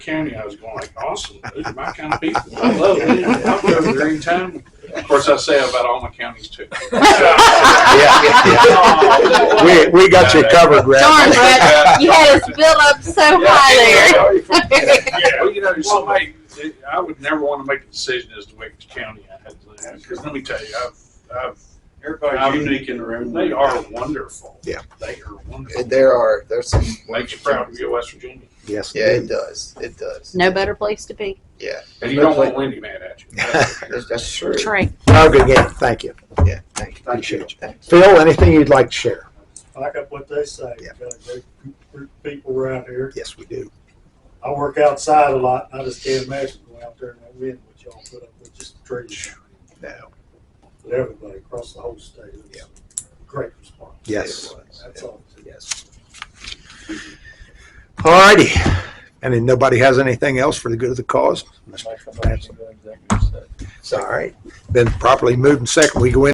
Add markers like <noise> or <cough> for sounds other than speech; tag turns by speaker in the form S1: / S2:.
S1: county I was going like, awesome, those are my kind of people. I love it. I'll go over there anytime. Of course, I say about all my counties too.
S2: Yeah, yeah, yeah. We, we got you covered, Brad.
S3: Darn, Brad. You had us built up so
S1: <laughs>
S3: high there.
S1: Yeah, well, you know, somebody, I would never want to make a decision as to which county I had to live in. Because let me tell you, I've, I've, I'm
S4: Everybody's
S1: unique in the room. They are wonderful.
S2: Yeah.
S1: They are wonderful.
S5: And there are there's some.
S1: Makes you proud to be a West Virginia.
S2: Yes.
S5: Yeah, it does. It does.
S3: No better place to be.
S5: Yeah,
S1: And you don't want Wendy mad at you. <laughs>
S2: <laughs>
S5: that's, that's true.
S3: Trey.
S2: Oh, good game. Thank you.
S5: Yeah, thank you.
S2: Appreciate
S5: Thank
S2: you. Phil, anything you'd like to share?
S6: Back up what they say.
S2: Yeah.
S6: Got a great group of people around here.
S2: Yes, we do.
S6: I work outside a lot, and I just can't imagine going out there in that wind, which y'all put up with just trees.
S2: No.
S6: But everybody across the whole state. It was
S2: Yeah.
S6: a Great response.
S2: Yes.
S6: That's all.
S2: Yes. All righty. And then nobody has anything else for the good of the cause? Mr. Branson. All right. Been properly moved and second. We go in.